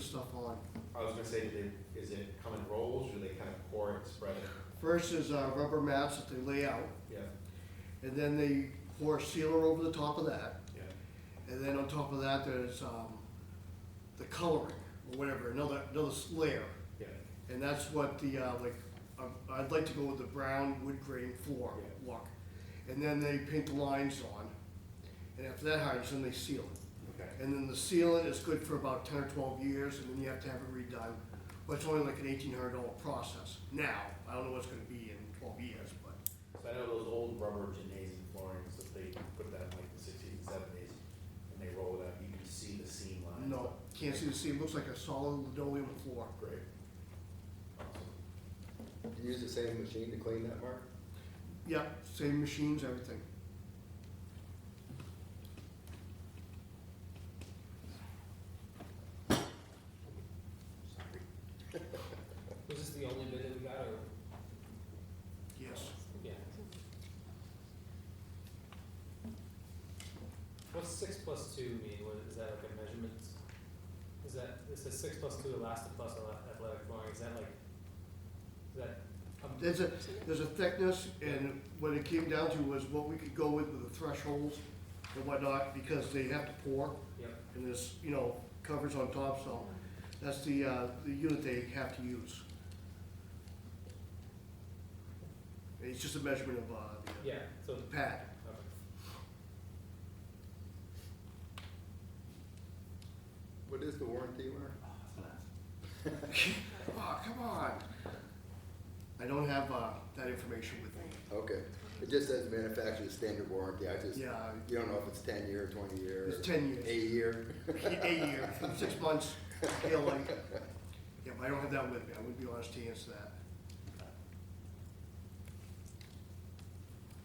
stuff on. I was gonna say, do they, is it come in rolls, or do they kind of pour it, spread it? First is uh, rubber mats that they lay out, Yeah, and then they pour sealer over the top of that. yeah. And then on top of that, there's um, the coloring or whatever, another another layer, Yeah, and that's what the uh, like. um, I'd like to go with the brown wood grain floor Yeah. look, and then they paint the lines on, and after that hides, then they seal it. okay, And then the sealant is good for about ten or twelve years, and then you have to have it redone. But it's only like an eighteen hundred dollar process now. I don't know what's gonna be in twelve years, but so I know those old rubber gymnasium floorings, that they put that in like the sixties and seventies, and they roll it out, you can see the seam lines. no, can't see the seam. Looks like a solid linoleum floor. Great. Awesome. You use the same machine to clean that, Mark? Yeah, same machines, everything. Was this the only bid that we got, or? Yes. Yeah. What's six plus two mean, what, is that like a measurement? Is that, it says six plus two elastic plus ele- athletic flooring, is that like, is that? um, There's a, there's a thickness, and what it came down to was what we could go with with the thresholds and whatnot, because they have to pour, Yep, and there's, you know, covers on top, so that's the, uh, the unit they have to use. It's just a measurement of, uh, the- yeah, so, the pad. okay. What is the warranty, Mark? Oh, come on. I don't have, uh, that information with me. Okay, it just says manufacturer's standard warranty, I just, you Yeah, don't know if it's ten year, twenty year. It's 10 years. Eight year. a year, six months, yeah, like, yeah, but I don't have that with me, I wouldn't be honest to answer that.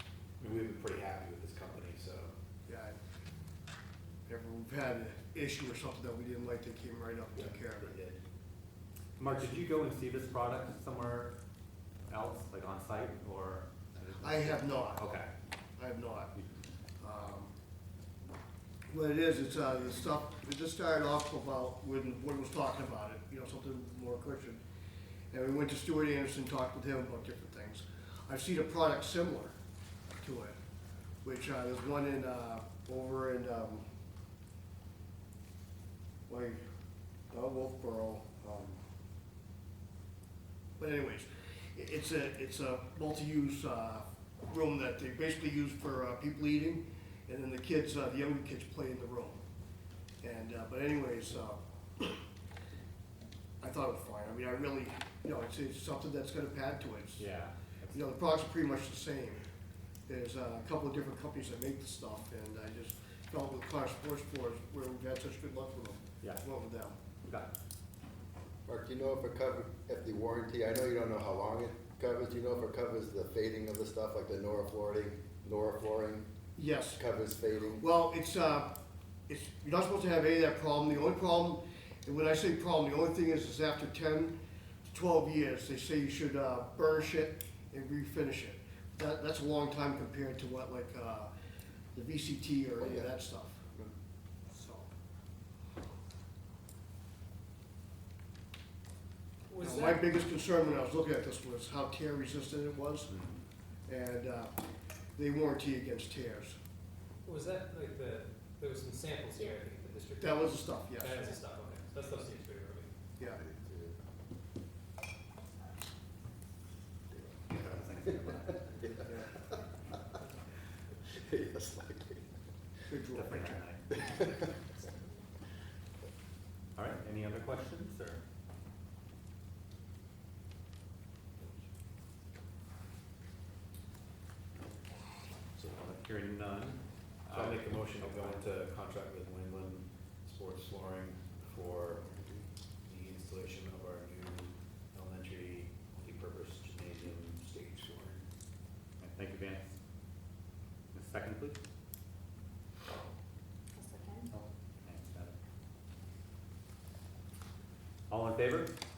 I mean, We've been pretty happy with this company, so, Yeah, I- whenever we've had an issue or something that we didn't like, they came right up and took care of it. we did. Mark, did you go and see this product somewhere else, like on site or? I have not, Okay. I have not. Um, What it is, it's, uh, the stuff, it just started off about when Wood was talking about it, you know, something more Christian. And we went to Stuart Anderson, talked with him about different things. I've seen a product similar to it, which, uh, there's one in, uh, over in, um, like, not Wolfboro, um, but anyways, i- it's a, it's a multi-use, uh, room that they basically use for, uh, people eating, and then the kids, uh, the younger kids play in the room. And, uh, but anyways, uh, I thought it was fine, I mean, I really, you know, it's, it's something that's got a pad to it. It's- Yeah. You know, the products are pretty much the same. There's uh, a couple of different companies that make the stuff, and I just felt with Clark Sports Floors, where we've had such good luck with them, Yeah. went with them. Okay. Mark, do you know if it covers, if the warranty, I know you don't know how long it covers, do you know if it covers the fading of the stuff, like the Nora flooring, Nora flooring Yes. covers fading? Well, it's, uh, it's, you're not supposed to have any of that problem. The only problem, and when I say problem, the only thing is, is after ten to twelve years, they say you should, uh, burnish it and refinish it. That, that's a long time compared to what, like, uh, the VCT or any of that stuff. So, Was now, my that, biggest concern when I was looking at this was how tear resistant it was. And, uh, they warranty against tears. was that like the, there was some samples here, I think, at the district? That was the stuff, yes, That is the stuff, okay, so that stuff seems pretty early. yeah. Yes, likely. Good draw. Definitely tonight. All right, any other questions or? So, uh, hearing none. uh, So I make a motion to go into contract with New England Sports Flooring for the installation of our new elementary multipurpose gymnasium stage flooring. Thank you, Vance. A second, please. A second? Oh, thanks, got it. All in favor? Uh,